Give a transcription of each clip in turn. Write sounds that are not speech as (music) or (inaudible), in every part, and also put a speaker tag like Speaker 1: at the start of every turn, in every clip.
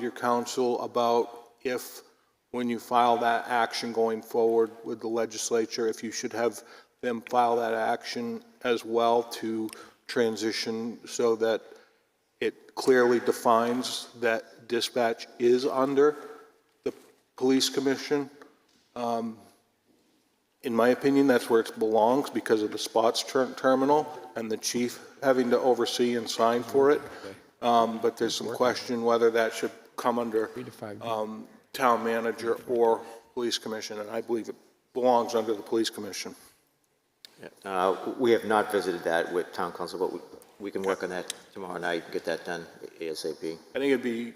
Speaker 1: your counsel about if, when you file that action going forward with the legislature, if you should have them file that action as well to transition so that it clearly defines that dispatch is under the police commission. Um, In my opinion, that's where it belongs because of the spots ter- terminal and the chief having to oversee and sign for it. Um, But there's some question whether that should come under um, town manager or police commission, and I believe it belongs under the police commission.
Speaker 2: Uh, We have not visited that with town council, but we- we can work on that tomorrow night, and get that done ASAP.
Speaker 1: I think it'd be,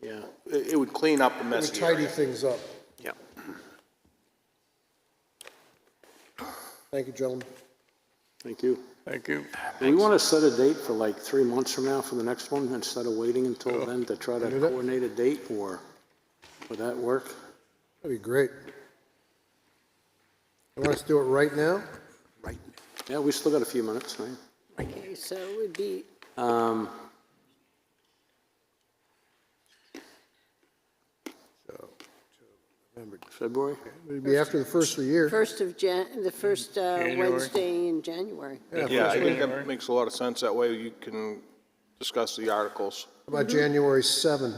Speaker 1: yeah, it it would clean up the
Speaker 3: We
Speaker 1: mess here.
Speaker 3: tidy things up.
Speaker 2: Yeah.
Speaker 3: Thank you, gentlemen.
Speaker 4: Thank you.
Speaker 5: Thank you.
Speaker 4: Do we want to set a date for like three months from now for the next one instead of waiting
Speaker 5: Oh.
Speaker 4: until then to try to
Speaker 3: Wanna do that?
Speaker 4: coordinate a date or would that work?
Speaker 3: That'd be great. You want us to do it right now?
Speaker 4: Yeah, we still got a few minutes, right?
Speaker 6: Okay, so it would be,
Speaker 4: Um, February?
Speaker 3: It'd be after the first of the year.
Speaker 6: first of Jan, the first uh,
Speaker 5: January.
Speaker 6: Wednesday in January.
Speaker 1: Yeah, I think that makes a lot of sense. That way you can discuss the articles.
Speaker 3: About January 7.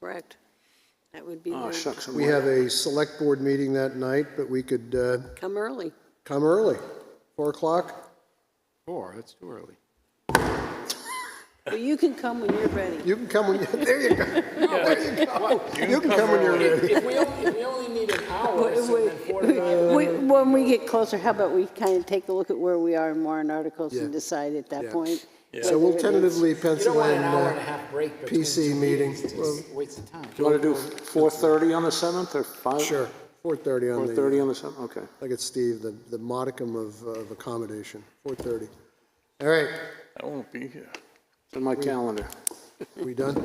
Speaker 6: Correct. That would be,
Speaker 4: Oh,
Speaker 6: the-
Speaker 4: shucks. I'm
Speaker 3: We
Speaker 4: late.
Speaker 3: have a select board meeting that night, but we could uh,
Speaker 6: come early.
Speaker 3: come early, 4 o'clock.
Speaker 7: Four, that's too early.
Speaker 6: Well, You can come when you're ready.
Speaker 3: (laughs) You can come when, you there you go. There you go. You can come when you're ready.
Speaker 7: If we only, if we only need an hour,
Speaker 6: We- we- we- When we get closer, how about we kind of take a look at where we are in warrant articles and
Speaker 3: Yeah.
Speaker 6: decide at that
Speaker 3: Yeah.
Speaker 6: point?
Speaker 3: So we'll
Speaker 6: whether it is-
Speaker 3: tentatively pencil in, uh,
Speaker 7: half break
Speaker 3: PC meeting. Well,
Speaker 7: Waste of time.
Speaker 4: Do you want to do 4:30 on the 7th or 5?
Speaker 3: sure, 4:30 on the, uh,
Speaker 4: 4:30 on the 7th, okay.
Speaker 3: like it's Steve, the the modicum of uh, of accommodation, 4:30. All right,
Speaker 5: I won't be here.
Speaker 4: It's on my calendar.
Speaker 3: we done?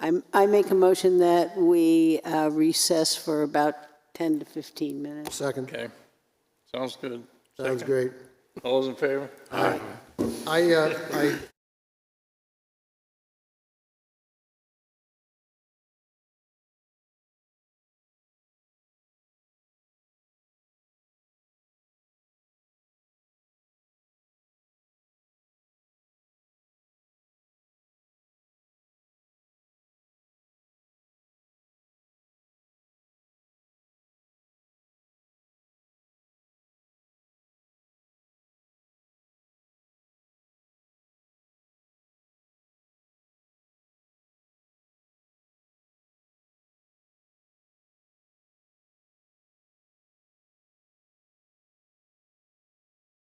Speaker 6: I'm, I make a motion that we uh, recess for about 10 to 15 minutes.
Speaker 3: Second,
Speaker 5: Okay. Sounds good.
Speaker 3: sounds great.
Speaker 5: All those in favor?
Speaker 3: I, uh, I